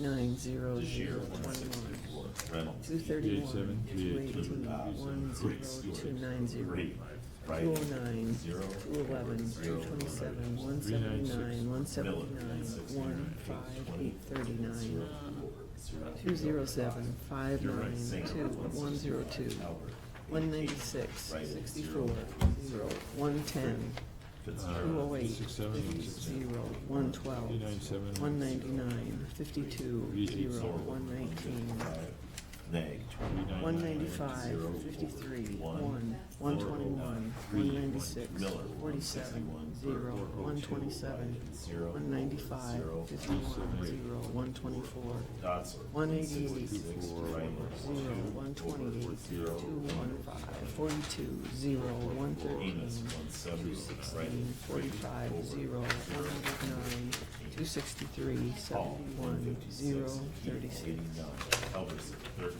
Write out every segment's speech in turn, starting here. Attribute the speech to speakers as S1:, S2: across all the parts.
S1: Nine zero zero twenty-one,
S2: Reynolds.
S1: two thirty-one,
S3: seven,
S1: two
S3: three eight
S1: eighteen, one zero, two nine zero,
S2: Three, right,
S1: two oh nine,
S2: zero,
S1: two eleven, two twenty-seven, one
S3: Three nine six.
S1: seventy-nine, one
S2: Miller,
S1: seventy-nine,
S2: sixty
S1: one
S2: nine,
S1: five,
S2: twenty,
S1: eight thirty-nine,
S2: zero, four,
S1: two zero
S2: zero.
S1: seven, five
S2: You're
S1: nine,
S2: right, Singer,
S1: two, one zero two,
S2: 162, Albert,
S1: one
S2: 88,
S1: ninety-six,
S2: right,
S1: sixty-four, zero,
S2: zero,
S1: one ten,
S2: Fitzgerald,
S1: two oh eight,
S3: Six seven,
S1: fifty,
S3: six seven.
S1: zero, one twelve,
S3: Three nine seven.
S1: one ninety-nine, fifty-two,
S3: Three eight
S1: zero,
S2: Zorro,
S1: one nineteen,
S2: 155, Nag,
S1: One ninety-five, fifty-three, one, one twenty-one, one ninety-six, forty-seven, zero, one twenty-seven, one ninety-five, fifty-one, zero, one twenty-four,
S2: Dotson.
S1: one eighty-eight,
S2: Six,
S1: zero,
S2: Reynolds,
S1: one twenty-eight, two one five, forty-two, zero, one
S2: Enos,
S1: thirteen,
S2: one
S1: two
S2: seventy-one,
S1: sixteen,
S2: Reynolds,
S1: forty-five, zero, one hundred nine, two sixty-three,
S2: Paul, one
S1: seventy-one,
S2: fifty-six,
S1: zero,
S2: Keith,
S1: thirty-six.
S2: eighty-nine, Elvis, thirteen,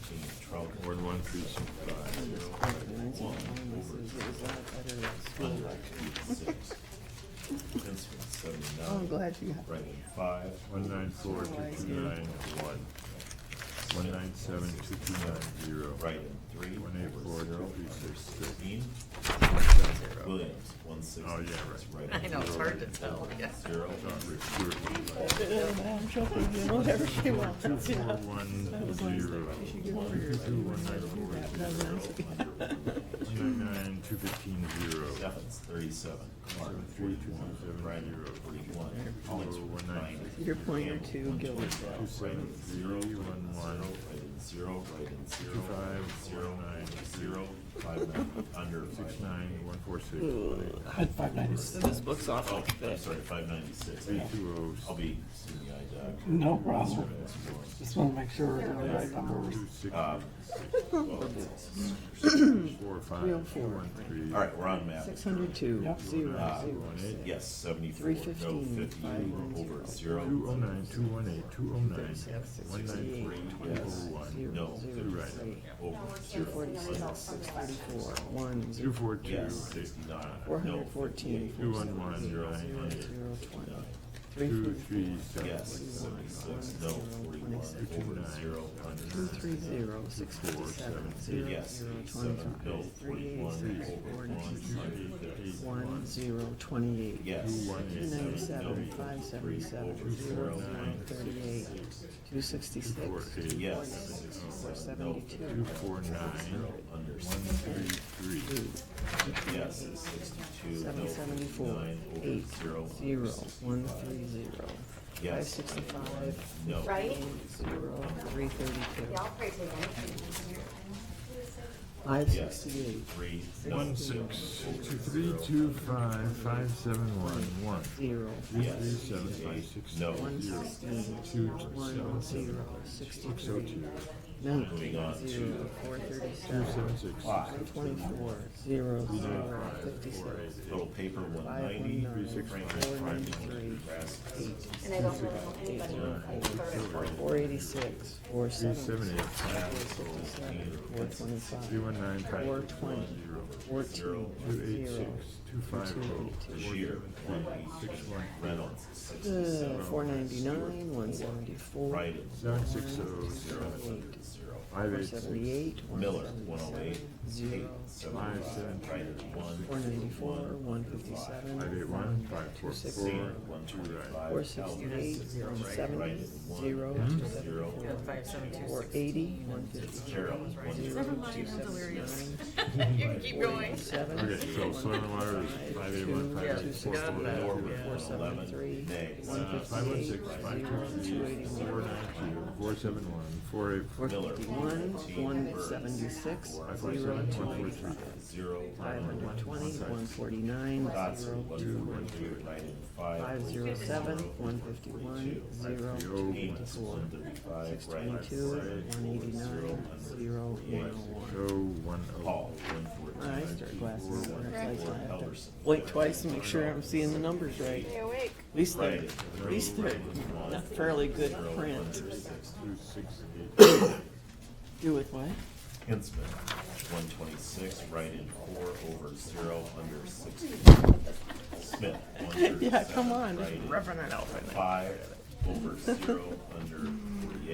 S2: Trump,
S3: Ward one precinct five.
S1: And this recognizing illnesses, it was a lot better at school.
S2: six. Vince,
S1: Oh,
S2: one
S1: I'm
S2: seventy-nine,
S1: glad you have.
S2: Reynolds, five.
S3: One nine four two two nine one. One nine seven two two nine zero.
S2: Right, three.
S3: One eight
S2: over
S3: four
S2: zero,
S3: two three six six.
S2: Dean,
S3: Zero.
S2: Williams, one sixty.
S3: Oh, yeah,
S2: right.
S4: I know, it's hard to tell, yeah.
S2: Zero,
S3: Dot recruit.
S1: Whatever she wants.
S3: Two four one zero. One nine four zero. One nine nine two fifteen zero.
S2: Steffens, thirty-seven. Clark,
S3: Seven three two
S2: forty-one.
S3: two seven
S2: Ryder,
S3: zero.
S2: forty-one.
S3: Zero
S2: Hollingsworth,
S3: one nine
S2: nine.
S1: Your pointer
S2: Campbell,
S1: to
S2: one
S1: Gillis.
S3: two
S2: twenty-five.
S3: seven zero one one.
S2: Right in zero, right in zero.
S3: Two five
S2: Zero,
S3: one nine
S2: zero, five nine, under
S3: Six
S2: five nine.
S3: nine one four six.
S1: I had five nights. This book's
S2: Oh,
S1: awful.
S2: I'm sorry, five ninety-six.
S3: Three two
S2: I'll
S3: oh.
S2: be seeing uh, the eye doc.
S5: No problem. Just want to make sure we're on the right number.
S3: Two six.
S2: Um,
S3: Four five two one three.
S2: All right, we're on map.
S1: Six hundred two,
S5: Yep.
S1: zero,
S2: Uh,
S1: zero, six.
S2: Yes, seventy-four,
S1: Three
S2: no,
S1: fifteen,
S2: fifty,
S1: five nine
S2: over
S1: zero.
S3: Two oh
S2: zero.
S3: nine, two one eight, two oh nine,
S1: Thirty-six,
S3: one nine
S1: sixty-eight,
S3: three, two oh
S2: yes,
S3: one,
S1: Zero,
S2: No,
S1: zero,
S3: right.
S1: three.
S2: Over
S1: Two
S2: zero.
S1: forty-six, six thirty-four, one,
S3: two
S1: zero.
S3: four two,
S2: Yes, sixty-nine.
S1: Four
S2: No,
S1: hundred fourteen,
S3: two
S1: four
S3: one one,
S1: seven, zero, zero,
S3: nine eight,
S1: zero, twenty.
S3: two
S1: Three
S3: three
S1: forty-four,
S3: seven,
S2: Yes, seventy-six, no, forty-one,
S1: Twenty-six.
S2: over zero,
S1: Two
S2: under.
S1: three zero six fifty-seven zero
S2: Yes,
S1: zero
S2: seven, no,
S1: twenty-five thirty-eight
S2: forty-one,
S1: six
S2: over
S1: forty-two
S2: one, under.
S1: one zero twenty-eight
S2: Yes.
S3: Two one
S1: two
S3: eight seven,
S1: ninety-seven five seventy-seven zero zero thirty-eight two sixty-six
S3: four eight,
S2: Yes.
S1: forty-six four
S3: two
S1: seventy-two
S3: four nine,
S2: Under.
S3: one three three,
S1: two
S2: Yes, sixty-two, no,
S1: seven seventy-four
S2: nine,
S1: eight
S2: over zero.
S1: zero one three zero five
S2: Yes.
S1: sixty-five
S2: No.
S6: Right?
S1: zero three thirty-two
S6: Yeah, I'll pray for them.
S1: five
S2: Yes,
S1: sixty-eight
S2: three, no.
S3: one six, two three two five, five seven one, one,
S1: zero
S3: two three seven five six
S2: No.
S1: one
S3: seven zero,
S1: sixteen
S3: two
S1: one
S3: seven seven,
S1: zero
S3: six oh
S1: sixty-three
S3: two,
S2: Moving on
S1: nineteen
S2: to-
S1: zero four
S3: two
S1: thirty-seven
S3: seven six,
S2: Five.
S1: Twenty-four, zero, zero,
S3: five, four
S1: fifty-six,
S3: eight
S2: Little paper, one
S1: five,
S2: ninety,
S1: one, nine,
S2: Franklin,
S1: four,
S2: prime,
S1: ninety-three,
S2: grass,
S1: eight,
S6: And I don't really know anybody who's like third.
S1: four eighty-six, four
S3: three seven
S1: seventy,
S3: eight five,
S1: fifty-seven, four
S3: three
S1: twenty-five,
S3: one nine five
S1: four
S3: one
S1: twenty,
S3: zero.
S1: fourteen,
S3: Two eight six,
S1: zero,
S3: two five oh, four
S2: Shear,
S3: seven three, six one,
S2: Reynolds, sixty-seven,
S1: uh, four ninety-nine, one seventy-four, one
S2: Ryden,
S3: seven six oh, zero,
S1: seventy-eight,
S2: zero.
S3: five
S1: four
S3: eight six,
S1: seventy-eight, one
S2: Miller, one oh
S1: seventy-seven,
S2: eight, eight,
S1: zero,
S2: seven,
S3: seven,
S2: Ryden, one.
S1: four ninety-four, one
S3: five eight
S1: fifty-seven,
S3: one, five four
S1: six,
S3: four,
S2: Zero, one
S3: two right.
S2: twenty-five.
S1: four sixty-eight, zero seventy, zero, two
S2: Zero.
S1: seventy-four,
S4: Five, seven, two,
S1: Four
S4: six.
S1: eighty, one
S2: Carol,
S1: fifty-three,
S2: one
S1: zero,
S2: zero.
S1: two seventy-nine,
S4: You can keep going.
S1: seven.
S3: Okay, so soil and water is five eight one,
S4: Yeah,
S3: five eight four,
S4: got
S3: four
S4: that.
S3: four,
S1: Four seven three, one
S3: Uh, five one six,
S1: fifty-eight,
S3: five
S1: zero,
S3: two
S1: two
S3: three, four
S1: eighty-one,
S3: nine two, four seven one, four eight
S1: four
S3: four,
S2: Miller,
S1: fifty-one, one seventy-six, zero, two eighty-five.
S2: Zero.
S1: Five hundred twenty, one forty-nine,
S2: Dotson,
S1: zero,
S2: one
S1: two,
S2: forty-three, Ryden, five.
S1: five zero seven, one fifty-one, zero, two
S2: Eight,
S1: eighty-four.
S2: one thirty-five,
S1: Six
S2: Ryden,
S1: twenty-two, one eighty-nine, zero, one oh one.
S3: oh one oh.
S2: Paul, one
S1: My eyes
S2: fourteen.
S1: start glasses, so it's like I have to
S2: Elverson.
S1: blink twice and make sure I'm seeing the numbers right.
S4: Stay awake.
S1: At least they're,
S2: Right.
S1: at least they're not fairly good print.
S3: Two six eight,
S1: Do with what?
S2: Hinsman, one twenty-six, right in four, over zero, under sixty. Smith, one thirty-seven.
S1: Yeah, come on,
S2: Right
S1: just
S2: in
S1: roughing it out right now.
S2: five, over zero, under forty